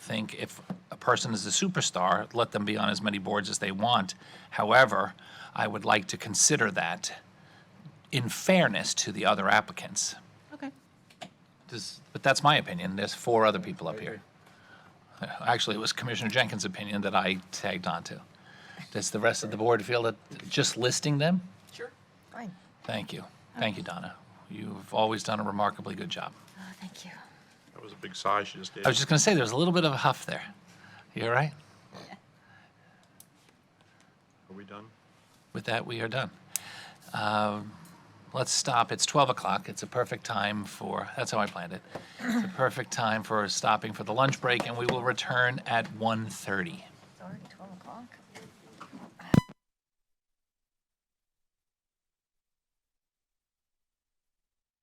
think if a person is a superstar, let them be on as many boards as they want. However, I would like to consider that in fairness to the other applicants. Okay. Does- But that's my opinion. There's four other people up here. Uh, Actually, it was Commissioner Jenkins' opinion that I tagged onto. Does the rest of the board feel that just listing them? Sure. Fine. Thank you. Thank you, Donna. You've always done a remarkably good job. Oh, thank you. That was a big sigh she just did. I was just going to say, there's a little bit of a huff there. You all right? Are we done? With that, we are done. Um, Let's stop. It's 12 o'clock. It's a perfect time for, that's how I planned it. It's a perfect time for stopping for the lunch break, and we will return at 1:30.